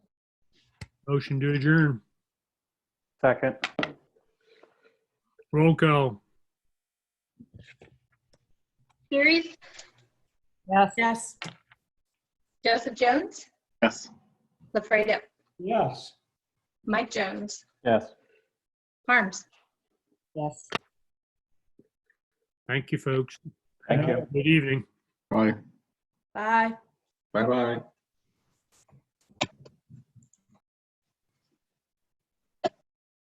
Motion to adjourn. Second. Roll call. Series, Yes. Yes. Joseph Jones, Yes. LaFredo, Yes. Mike Jones, Yes. Harms. Yes. Thank you, folks. Thank you. Good evening. Bye. Bye. Bye-bye.